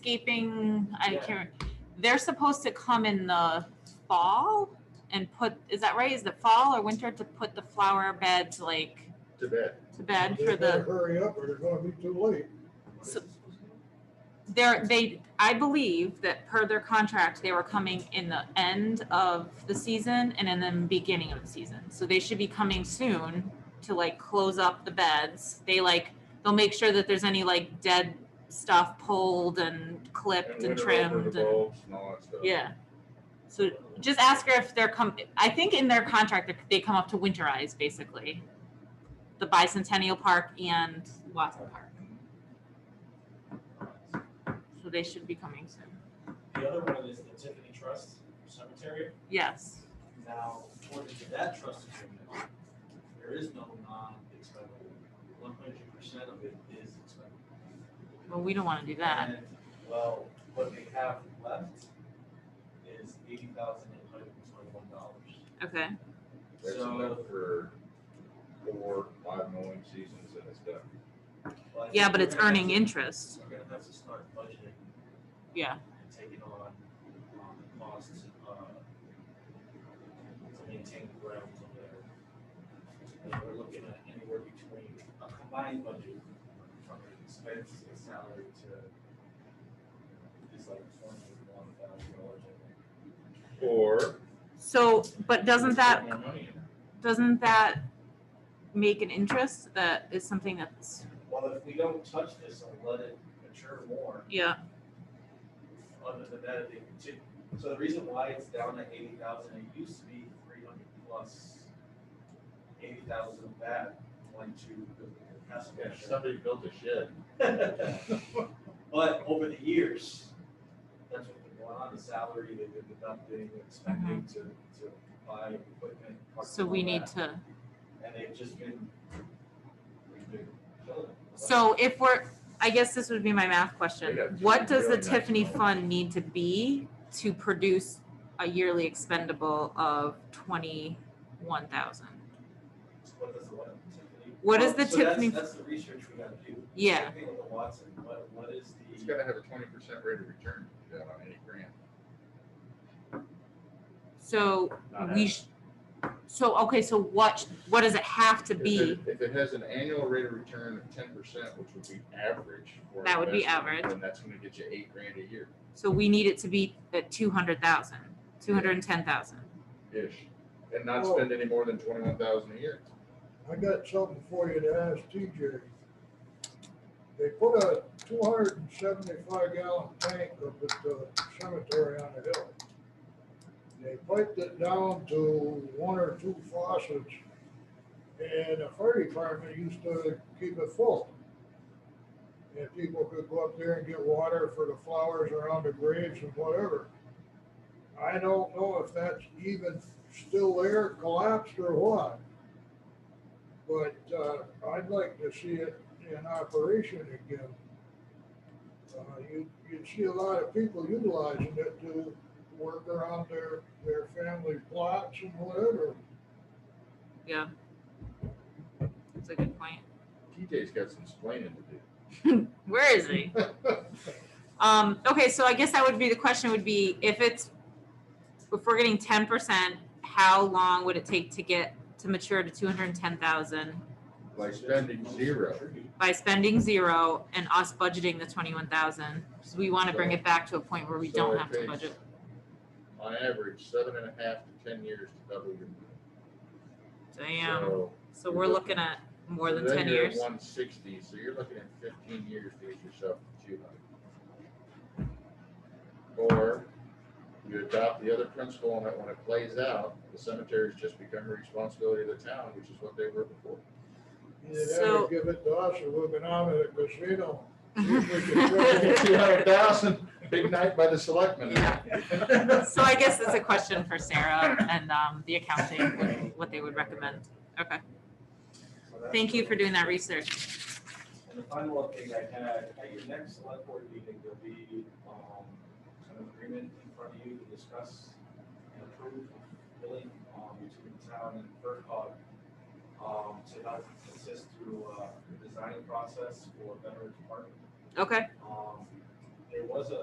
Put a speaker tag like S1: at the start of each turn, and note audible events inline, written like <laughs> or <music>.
S1: landscaping, I
S2: Yeah.
S1: can't, they're supposed to come in the fall and put, is that right? Is the fall or winter to put the flower beds like
S2: to bed.
S1: to bed
S3: They
S1: for
S3: better
S1: the,
S3: Hurry up or they're gonna be too late.
S1: So- they're, they, I believe that per their contract, they were coming in the end of the season and in the beginning of the season. So they should be coming soon to like close up the beds. They like, they'll make sure that there's any like dead stuff pulled and clipped and
S2: winter over
S1: trimmed
S2: the
S1: and.
S2: bulbs and all that stuff.
S1: Yeah. So just ask her if they're com, I think in their contract, that they come up to winterize basically. The bicentennial park and Watson Park. So they should be coming soon.
S4: The other one is the Tiffany Trust Cemetery.
S1: Yes.
S4: Now, according to that trust agreement, there is no non-expendable. One hundred percent of it is expendable.
S1: Well, we don't want to do that.
S4: And, Well, what they have left is eighty thousand eight hundred and twenty-one dollars.
S1: Okay.
S2: That's
S4: So-
S2: enough for four, five mowing seasons and it's done.
S1: Yeah, but it's earning interest.
S4: We're gonna have to start budgeting
S1: Yeah.
S4: and taking on, um, the costs, uh, to maintain the grounds over there. And we're looking at anywhere between a combined budget from the expense and salary to is like twenty-one thousand dollars.
S2: Or
S1: So, but doesn't that,
S4: More money in it.
S1: doesn't that make an interest that is something that's,
S4: Well, if we don't touch this and let it mature more,
S1: yeah,
S4: other than that, they continue. So the reason why it's down to eighty thousand, it used to be three hundred plus eighty thousand of that went to building a castle.
S2: yeah, somebody built a shed.
S4: <laughs> But over the years, that's what been going on, the salary, they've been deducting, expecting to, to buy equipment. parts,
S1: Uh-huh. so we
S4: all
S1: need
S4: that,
S1: to.
S4: And they've just been, we've been killing them.
S1: So if we're, I guess this would be my math question.
S2: They got two
S1: What does the
S2: really nice
S1: Tiffany
S2: homes.
S1: fund need to be to produce a yearly expendable of twenty-one thousand?
S4: What does the what, Tiffany?
S1: What is the
S4: Well, Oh, so that's-
S1: Tiffany-
S4: That's the research we gotta do.
S1: Yeah.
S4: Same thing with the Watson, what, what is
S2: It's
S4: the,
S2: gotta have a twenty percent rate of return to that on any grant.
S1: So
S2: Not
S1: we, sh- so, okay, so what, what does it have to
S2: If
S1: be?
S2: it- If it has an annual rate of return of ten percent, which would be average. for
S1: That would be
S2: investment,
S1: average.
S2: Then that's gonna get you eight grand a year,
S1: So we need it to be at two hundred thousand, two hundred and ten thousand.
S2: ish, and not
S3: Oh.
S2: spend any more than twenty-one thousand a year.
S3: I got something for you to ask TJ. They put a two hundred and seventy-five gallon tank up at the cemetery on the hill. They piped it down to one or two faucets. And the fire department used to keep it full. And people could go up there and get water for the flowers around the graves and whatever. I don't know if that's even still there, collapsed or what. But uh, I'd like to see it in operation again. Uh, You, you'd see a lot of people utilizing it to work around their, their family plots and whatever.
S1: Yeah. That's a good point.
S2: TJ's got some explaining to do.
S1: Where is he? <laughs> Um, okay, so I guess that would be, the question would be, if it's, if we're getting ten percent, how long would it take to get, to mature to two hundred and ten thousand?
S2: By spending zero.
S1: By spending zero and us budgeting the twenty-one thousand, because we wanna bring it back to a point where we
S2: So
S1: don't
S2: it
S1: have to
S2: takes,
S1: budget.
S2: On average, seven and a half to ten years to double your money.
S1: Damn,
S2: So-
S1: so we're looking at more
S2: so
S1: than
S2: then
S1: ten
S2: you're at
S1: years.
S2: One sixty, so you're looking at fifteen years to get yourself to two hundred. Or you adopt the other principle and that when it plays out, the cemeteries just become a responsibility of the town, which is what they were before.
S3: You'd
S1: So-
S3: have to give it to us or we're going out at the casino.
S2: Two hundred thousand, big night by the selectmen. <laughs>
S1: <laughs> So I guess that's a question for Sarah and, um, the accounting, what- what they would recommend. Okay, thank you for doing that research.
S4: And the final update I had, at your next select board meeting, there'll be, um, an agreement in front of you to discuss and approve billing, um, between the town and FERCog, um, to help assist through, uh, the design process for veterans park.
S1: Okay,
S4: Um, they was a